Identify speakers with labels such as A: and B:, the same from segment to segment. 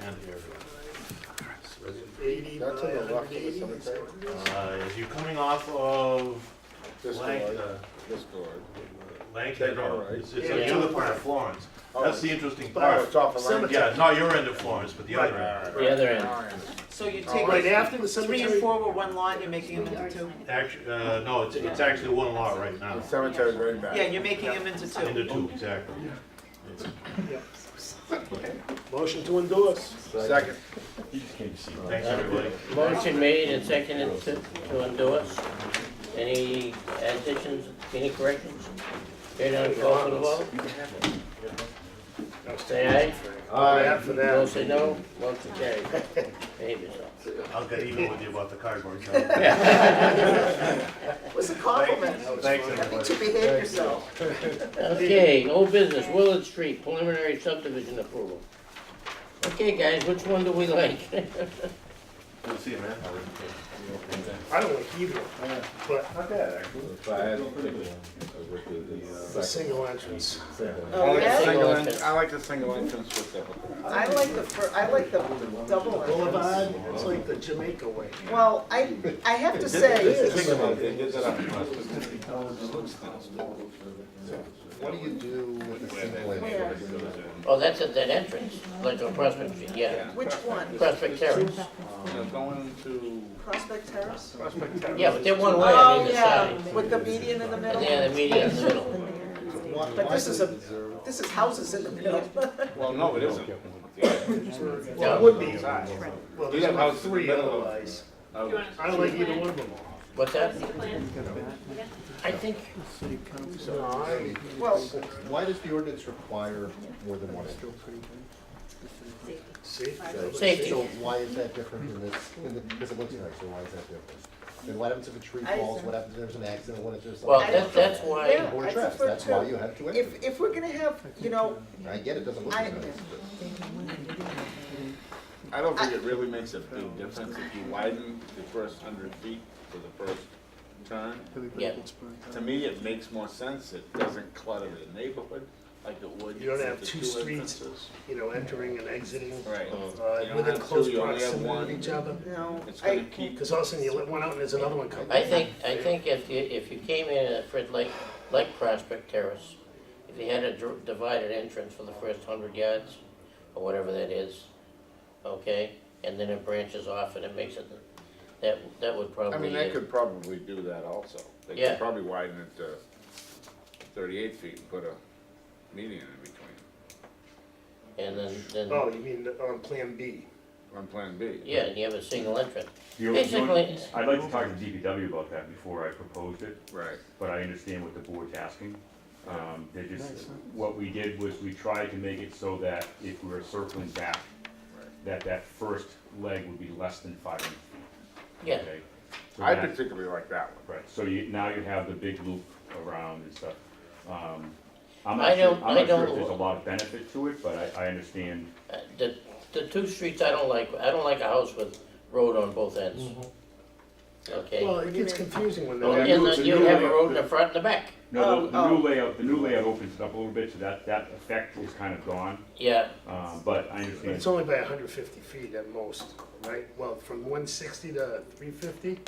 A: here.
B: Eighty by
C: That's on the left of the
B: 180,
C: cemetery.
B: is that what it is?
A: Uh, As you're coming off of
C: This
A: Lang-
C: door,
A: uh,
C: this door.
A: Langton
C: That door,
A: Road,
C: right?
A: it's it's
B: Yeah,
A: on the
B: yeah.
A: other part of Florence.
C: Oh.
A: That's the interesting
B: But-
C: Oh,
A: part.
C: it's off of Lang.
B: Cemetery.
A: Yeah, not your end of Florence, but the other
C: Right.
A: end.
D: The other end.
C: Oh,
E: So you
B: Right
E: take
B: after the
E: three and
B: cemetery,
E: four were one lot, you're making them into two?
A: Actually, uh, no, it's, it's actually one lot right now.
C: The cemetery's right back.
E: Yeah, you're making them into two.
A: Into two, exactly.
B: motion to endorse.
C: Second.
A: Thanks, everybody.
D: Motion made and seconded to to endorse. Any additions, any corrections? Hearing none, call for the vote. Say
B: Aye. For
D: aye.
B: that.
D: Motion no, motion carried. Behave yourself.
A: I'll get even with you about the cardboard cutout.
E: It was a compliment.
A: Thanks, everybody.
E: behave yourself.
D: Okay, old business, Willard Street preliminary subdivision approval. Okay, guys, which one do we like?
A: Good to see you, man.
B: I don't like either, but
A: Not bad, actually.
C: If I had to pick one, I would do
B: it's a
C: the uh, second.
B: single entrance.
E: Oh,
C: I like the
E: really?
C: single
D: Single
C: en-
D: entrance.
C: I like the single entrance with the,
E: I like the, fir- I like the double entrance.
B: Boulevard, it's like the Jamaica way.
E: Well, I, I have to say,
C: think about it, they did that on purpose.
F: What do you do with the single
E: Where?
D: Oh, that's at that entrance, like on Prospect Street, yeah.
E: which one?
D: Prospect Terrace.
C: You know, going to,
E: Prospect Terrace?
D: Yeah, but they're one way on
E: Oh,
D: either
E: yeah,
D: side.
E: with the median in the middle?
D: And they're the median in the middle.
E: But this is a, this is houses in the middle.
C: well, no, it isn't.
B: Well, it would be, well, there's only three otherwise.
C: Oh,
B: I don't like either one of them all.
D: What's that?
G: plan?
D: I think,
B: So I,
E: Well,
F: Why does the ordinance require more than one entrance?
B: see.
D: Safety.
F: So why is that different in this, in the, because it looks nice, so why is that different? And what happens if a tree
E: I-
F: falls, what happens if there's an accident, what if there's
D: well,
F: something?
D: that, that's why,
E: Yeah.
F: Or
E: I
F: traps,
E: prefer
F: that's why
E: to-
F: you have two
E: if,
F: entrances.
E: if we're gonna have, you know,
F: I get it, doesn't look
E: I-
F: nice. but-
C: I don't think it really makes a big difference if you widen the first hundred feet for the first turn.
D: yeah,
C: To me, it makes more sense, it doesn't clutter the neighborhood like it would.
B: You don't
C: with
B: have
C: the
B: two streets.
C: entrances.
B: you know, entering and exiting,
C: Right.
B: uh,
C: You don't
B: within
C: have
B: close
C: two, you only have
B: proximity of
C: one.
B: each other.
E: you know,
C: It's gonna
E: I,
C: keep,
B: Because all of a sudden you let one out and there's another one coming.
D: I think, I think if you, if you came in at Fred Lake, like Prospect Terrace, if you had a dr- divided entrance for the first hundred yards, or whatever that is, okay? And then it branches off and it makes it, that, that would
C: I mean,
D: probably,
C: they could probably do that also. They
D: Yeah.
C: could probably widen it to thirty-eight feet and put a median in between
D: and then, then,
B: Oh, you mean on Plan B?
C: on Plan B.
D: yeah, and you have a single entrance.
H: You're-
D: Basically,
H: I'd like to talk to DPW about that before I proposed it,
C: Right.
H: but I understand what the board's asking. Um, they just, what we did was we tried to make it so that if we were circling back, that that first leg would be less than five hundred feet.
D: yeah,
H: okay? So
C: I
H: that-
C: particularly like that one.
H: Right, so you, now you have the big loop around and stuff. Um, I'm
D: I
H: not sure,
D: don't-
H: I'm
D: I
H: not sure if
D: don't-
H: there's a lot of benefit to it, but I, I understand.
D: Uh, The, the two streets I don't like, I don't like a house with road on both ends. Okay?
B: Well, it gets confusing when
D: Well,
B: they're.
D: and
C: it's a
D: then you
C: new
D: have a
C: layout.
D: road in the front and the back.
H: No, the, the
E: Oh, oh.
H: new layout, the new layout opens it up a little bit, so that, that effect is kind of gone,
D: Yeah,
H: uh, but I
B: But
H: understand.
B: It's only by hundred fifty feet at most, right? Well, from one sixty to three fifty?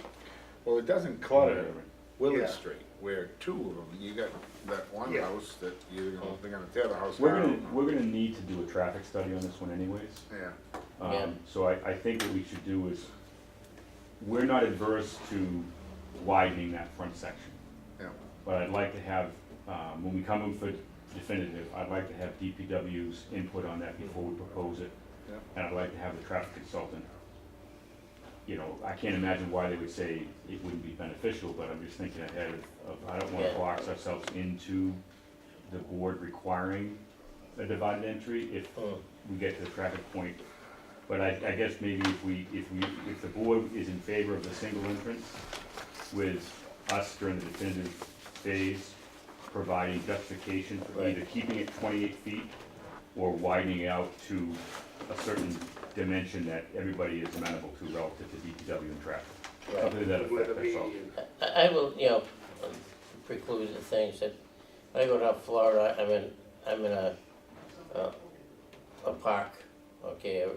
C: Well, it doesn't clutter
B: Yeah.
C: Willard Street, where two of them, you got that one
B: Yeah.
C: house that you're
D: Oh.
C: gonna, they're gonna tear the house
H: We're gonna,
C: down.
H: we're gonna need to do a traffic study on this one anyways.
C: Yeah.
D: Yeah.
H: Um, so I, I think what we should do is, we're not adverse to widening that front section.
C: Yeah.
H: But I'd like to have, um, when we come in for definitive, I'd like to have DPW's input on that before we propose it.
C: Yeah.
H: And I'd like to have the traffic consultant. You know, I can't imagine why they would say it wouldn't be beneficial, but I'm just thinking ahead of, of, I don't wanna
D: Yeah.
H: box ourselves into the board requiring a divided entry if
C: Mm.
D: Oh.
H: we get to the traffic point. But I, I guess maybe if we, if we, if the board is in favor of the single entrance with us during the definitive phase, providing justification for either keeping it twenty-eight feet or widening it out to a certain dimension that everybody is amenable to relative to DPW and traffic. Something to that
B: With
H: effect,
B: a
H: that's all.
B: median.
D: I, I will, you know, preclude the things that, when I go down Florida, I'm in, I'm in a, a, a park, okay,